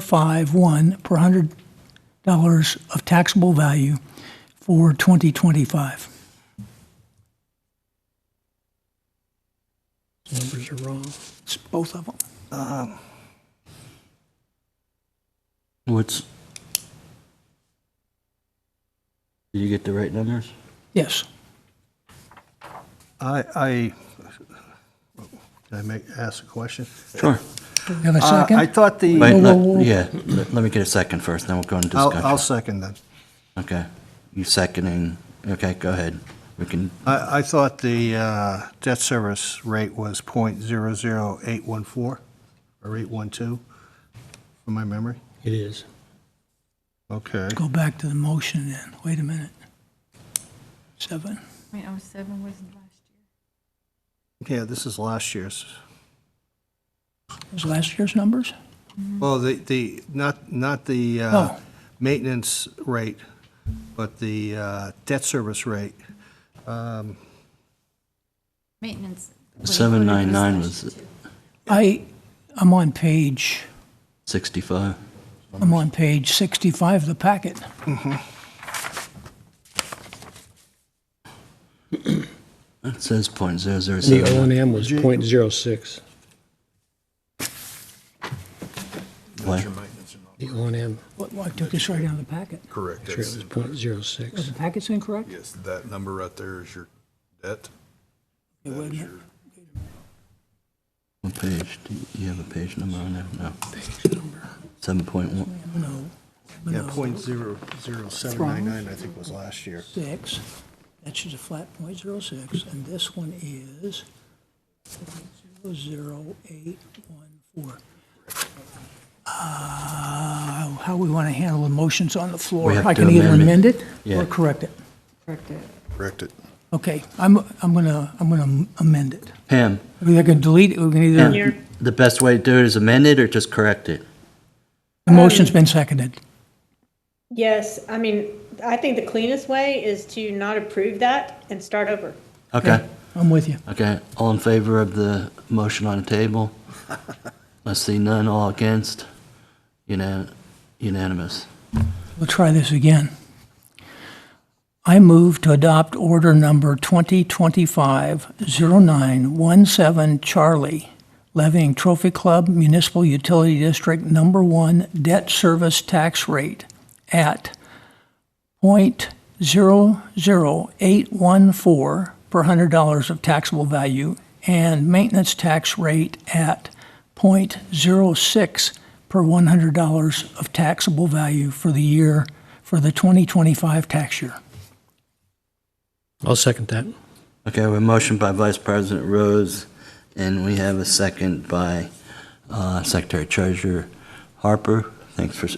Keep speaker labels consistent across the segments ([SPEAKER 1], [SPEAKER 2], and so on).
[SPEAKER 1] 451 per hundred dollars of taxable value for 2025.
[SPEAKER 2] Numbers are wrong.
[SPEAKER 1] It's both of them.
[SPEAKER 3] What's? Did you get the right numbers?
[SPEAKER 1] Yes.
[SPEAKER 2] I, I, can I make, ask a question?
[SPEAKER 3] Sure.
[SPEAKER 1] Have a
[SPEAKER 2] Uh, I
[SPEAKER 1] second?
[SPEAKER 2] thought the,
[SPEAKER 3] Wait,
[SPEAKER 1] Whoa,
[SPEAKER 3] let-
[SPEAKER 1] whoa, whoa.
[SPEAKER 3] yeah, let let me get a second first, then we'll go into
[SPEAKER 2] I'll, I'll
[SPEAKER 3] discussion.
[SPEAKER 2] second that.
[SPEAKER 3] Okay, you seconding, okay, go ahead. We can,
[SPEAKER 2] I, I thought the uh, debt service rate was point zero zero eight one four or eight one two, from my memory.
[SPEAKER 4] It is.
[SPEAKER 2] Okay.
[SPEAKER 1] Go back to the motion then. Wait a minute. Seven.
[SPEAKER 5] I mean, 07 oh, was last year.
[SPEAKER 2] Yeah, this is last year's.
[SPEAKER 1] Was last year's numbers?
[SPEAKER 2] Well, the, the, not, not the uh,
[SPEAKER 1] Oh.
[SPEAKER 2] maintenance rate, but the uh, debt service rate. Um,
[SPEAKER 5] Maintenance. what he
[SPEAKER 3] seven nine
[SPEAKER 5] quoted
[SPEAKER 3] nine
[SPEAKER 5] last
[SPEAKER 3] was
[SPEAKER 5] year.
[SPEAKER 1] I, I'm on page,
[SPEAKER 3] sixty-five.
[SPEAKER 1] I'm on page 65 of the packet.
[SPEAKER 3] It says point zero zero
[SPEAKER 4] The O
[SPEAKER 3] seven.
[SPEAKER 4] and M was point zero six. The O and M,
[SPEAKER 1] Well, I took this right out of the packet.
[SPEAKER 6] Correct.
[SPEAKER 4] sure it
[SPEAKER 6] That's,
[SPEAKER 4] was point zero
[SPEAKER 1] Was
[SPEAKER 4] six.
[SPEAKER 1] the packet's incorrect?
[SPEAKER 6] yes, that number right there is your debt.
[SPEAKER 1] It
[SPEAKER 6] That is
[SPEAKER 1] wasn't.
[SPEAKER 6] your
[SPEAKER 3] What page, do you- you have a page number on there? No. Seven point one,
[SPEAKER 1] No.
[SPEAKER 2] Yeah,
[SPEAKER 1] No.
[SPEAKER 2] point zero zero seven nine nine, I think, was last year.
[SPEAKER 1] Six. That's just a flat point zero six, and this one is zero zero eight one four. Uh, how we want to handle the motions on the floor?
[SPEAKER 3] We have
[SPEAKER 1] I
[SPEAKER 3] to
[SPEAKER 1] can either amend
[SPEAKER 3] amend it.
[SPEAKER 1] it
[SPEAKER 3] Yeah.
[SPEAKER 1] or correct it.
[SPEAKER 5] Correct it.
[SPEAKER 6] Correct it.
[SPEAKER 1] Okay, I'm, I'm gonna, I'm gonna amend it.
[SPEAKER 3] Pam,
[SPEAKER 1] We're gonna delete it, we can either,
[SPEAKER 3] Pam, the best way to do it is amend it or just correct it?
[SPEAKER 1] the motion's been seconded.
[SPEAKER 7] Yes, I mean, I think the cleanest way is to not approve that and start over.
[SPEAKER 3] Okay,
[SPEAKER 1] I'm with you.
[SPEAKER 3] okay, all in favor of the motion on the table? Let's see, none, all against, Unan- unanimous.
[SPEAKER 1] We'll try this again. I move to adopt order number 2025-0917, Charlie, levying Trophy Club Municipal Utility District Number One debt service tax rate at .00814 per hundred dollars of taxable value and maintenance tax rate at .06 per one hundred dollars of taxable value for the year, for the 2025 tax year.
[SPEAKER 4] I'll second that.
[SPEAKER 3] Okay, we have a motion by Vice President Rose, and we have a second by uh, Secretary Treasurer Harper. Thanks for s-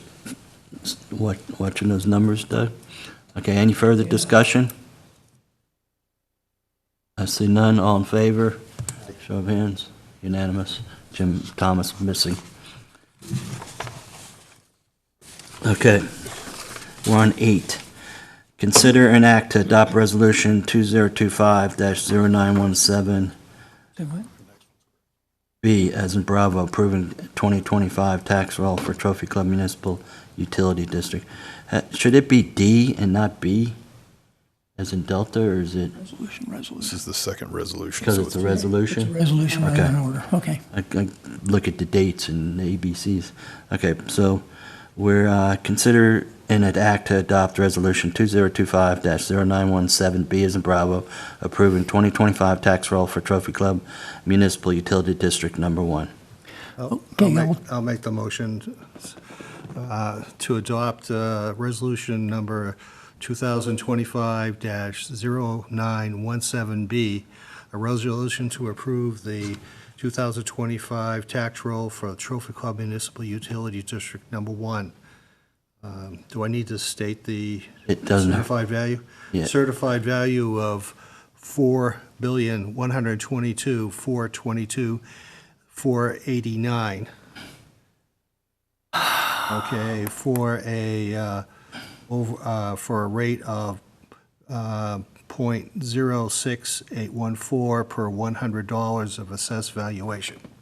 [SPEAKER 3] s- wa- watching those numbers, Doug. Okay, any further discussion? I see none, all in favor? Show of hands, unanimous. Jim Thomas missing. Okay, we're on eight. Consider an act to adopt Resolution 2025-0917B
[SPEAKER 1] Say what?
[SPEAKER 3] as in Bravo, approving 2025 tax roll for Trophy Club Municipal Utility District. Uh, Should it be D and not B, as in Delta, or is it,
[SPEAKER 1] Resolution,
[SPEAKER 6] This
[SPEAKER 1] resolution.
[SPEAKER 6] is the second resolution.
[SPEAKER 3] because
[SPEAKER 6] so
[SPEAKER 3] it's a resolution?
[SPEAKER 1] Resolution rather
[SPEAKER 3] Okay.
[SPEAKER 1] than order, okay.
[SPEAKER 3] I I look at the dates and the ABCs. Okay, so we're, uh, consider an act to adopt Resolution 2025-0917B as in Bravo, approving 2025 tax roll for Trophy Club Municipal Utility District Number One.
[SPEAKER 2] I'll Oh, I'll
[SPEAKER 1] Okay,
[SPEAKER 2] make,
[SPEAKER 1] I'll-
[SPEAKER 2] I'll make the motion uh, to adopt uh, resolution number 2025-0917B, a resolution to approve the 2025 tax roll for Trophy Club Municipal Utility District Number One. Um, Do I need to state the
[SPEAKER 3] It doesn't have-
[SPEAKER 2] certified value?
[SPEAKER 3] Yeah.
[SPEAKER 2] Certified value of $4,122,422 489. Okay, for a, uh, over, uh, for a rate of, uh, .06814 per $100 of assessed valuation.